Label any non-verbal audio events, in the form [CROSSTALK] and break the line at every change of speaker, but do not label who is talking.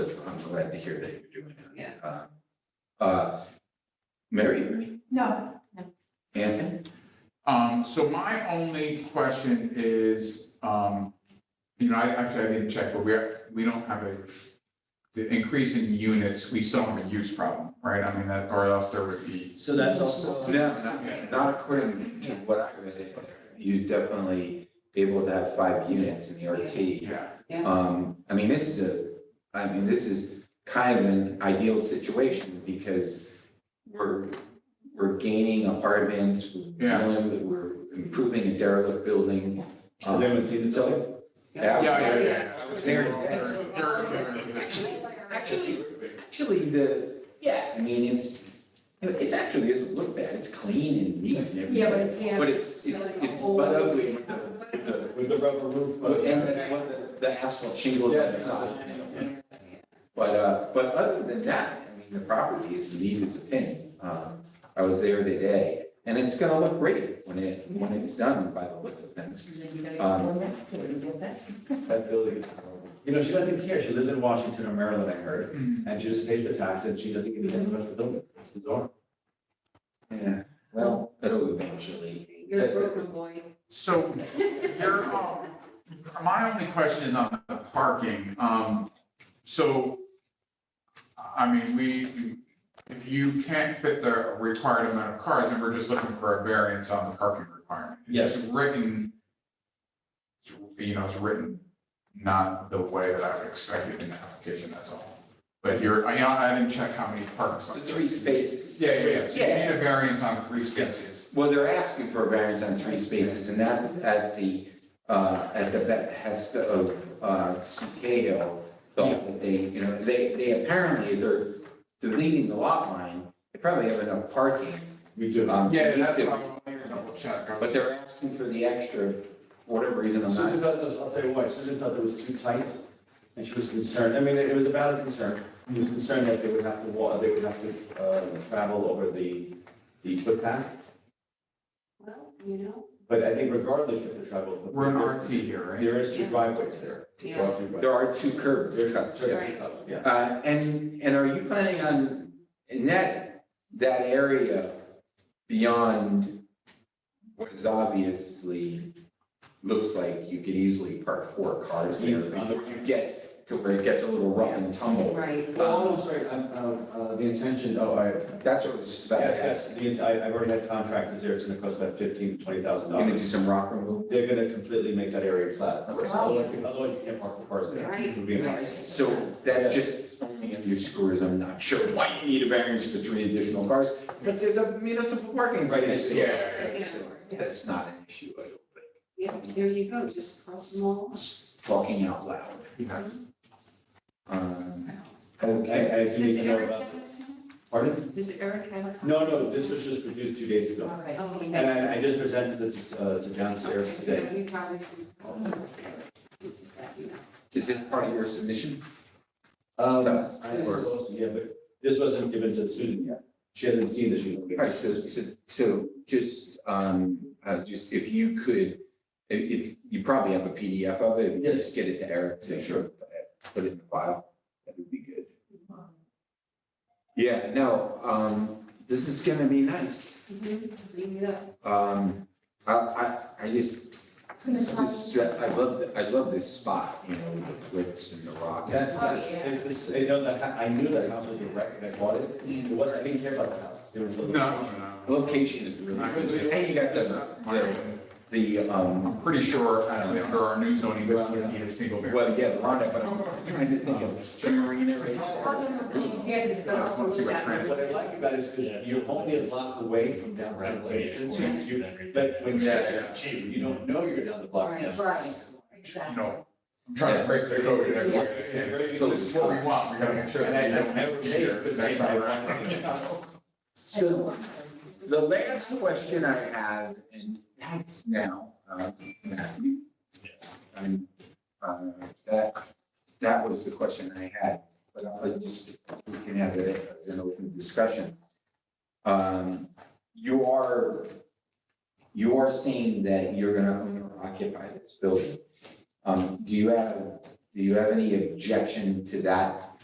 glad to hear that you're doing that.
Yeah.
Uh, Uh, Mary,
No,
Anthony,
Um, so my only question is, um, you know, I actually, I didn't check, but we're, we don't have a, the increase in units, we still have a use problem, right? I mean, that, or else there would be.
So that's also.
uh,
no, not, not according to what I read, you definitely be able to have five units in the RT.
Yeah,
Um, I mean, this is a, I mean, this is kind of an ideal situation because we're, we're gaining apartments, we're
Yeah.
dealing with- we're improving a derelict building.
Has anyone seen the building?
Yeah.
yeah, yeah, yeah. I was
There
thinking
it is.
they're- they're-
Actually, actually, actually, the, yeah, I mean, it's, you know, it's actually, doesn't look bad, it's clean and neat and everything.
yeah, but it's-
Yeah.
But it's, it's, it's but ugly with the, with the,
With the rubber roof.
and then what the, the asphalt shingles on the side. But, uh, but other than that, I mean, the property is neat as a pin. Um, I was there today, and it's gonna look great when it, when it's done by the looks of things. Um, That building is horrible.
You know, she doesn't care. She lives in Washington or Maryland, I heard,
Mm.
and she just pays the tax and she doesn't get anything about the building. It's bizarre.
Yeah, well, it'll eventually.
You're a broken boy.
So There, um, my only question is on the parking, um, so, I mean, we, if you can't fit the required amount of cars, then we're just looking for a variance on the parking requirement. It's just Written, you know, it's written not the way that I would expect it in the application, that's all. But you're, I, I didn't check how many parks.
The three spaces.
Yeah, yeah, yeah, so you
Yeah.
need a variance on three spaces.
Well, they're asking for a variance on three spaces, and that's at the, uh, at the behest of, uh, Cicado. Thought that they, you know, they, they apparently, they're deleting the lot line, they probably have enough parking.
We do.
um, to
Yeah,
meet
that's
them,
what I'm gonna double check. I was-
But they're asking for the extra, for whatever reason, I'm
Susan
not,
thought, I'll tell you why, Susan thought it was too tight, and she was concerned, I mean, it was a valid concern. She was concerned that they would have to wa, they would have to, uh, travel over the, the footpath,
[LAUGHS] Well, you know,
but I think regardless of the travel. footpath,
We're in RT here, right?
There is two driveways there.
Yeah.
There are two driveways.
there are two curbs,
There are two
cuts, yeah.
Right.
Yeah.
Uh, and, and are you planning on, in that, that area beyond what is obviously, looks like you could easily park four cars there
Easy.
before you get to where it gets a little rough and tumble?
right.
Well,
I'm sorry, I'm, uh, the intention, oh, I.
That's what I was just about
Yes,
to ask.
yes, the, ent- I, I've already had contractors there, it's gonna cost about fifteen, twenty thousand
You're gonna do
dollars.
some rock removal?
They're gonna completely make that area flat,
Okay.
otherwise, otherwise you can't park the cars there.
Right.
It would be impossible.
Yes.
So that just only underscores, I'm not sure why you need a variance for three additional cars, but there's a municipal parking
Right,
space.
yeah,
yeah,
yeah.
So That's not an issue, I don't think.
Yeah, there you go, just cross them all.
talking out loud.
Yeah.
Mm-hmm. Um,
Wow.
Okay,
I, I do need
Does
to know
Eric
about,
have this one?
pardon?
Does Eric have a?
No, no, this was just produced two days ago.
Okay.
Oh, okay.
And I, I just presented it to, uh, to
Okay,
downstairs
so
today.
we probably can.
is this part of your submission?
Um,
To
I
us, or-
suppose, yeah, but this wasn't given to Susan yet. She hasn't seen this.
All right, so, so, so just, um, uh, just if you could, if, if, you probably have a PDF of it, if you
Yes.
just get it to Eric, say, sure, Mm-hmm. put it in the file, that would be good. Yeah, no, um, this is gonna be nice.
Bring it up.
Um, I, I, I just, this is- I love, I love this spot, you know, with the cliffs and the rock.
That's,
Oh,
that's,
yeah.
it's this, you know, the, ha- I knew that house was a wreck and I bought it. It wasn't, I didn't care about the house. There was a
No,
little-
no, no.
Location is really good. And you got the, the, the, um,
I'm pretty sure, I don't know, under our new zoning, we wouldn't need a single variance.
well, yeah, the Ronda, but I'm trying to think of the marina right
I just wanna see what trans-
What I like about it is because you're only a block away from downtown Places. You, but when
Yeah, yeah.
you're, cheap, you don't know you're down the block.
Right.
Right.
You know, I'm trying to break the code. you know,
Yeah.
yeah, So this is what we want, we gotta make sure
And
that
I,
you
I
don't
never
have
did,
Peter,
because
because that's
I,
not
[LAUGHS] I.
right.
So the last question I have, and that's now, uh, Matthew. And, uh, that, that was the question I had, but I just, we can have it as an open discussion. Um, you are, you are saying that you're gonna own or occupy this building. Um, do you have, do you have any objection to that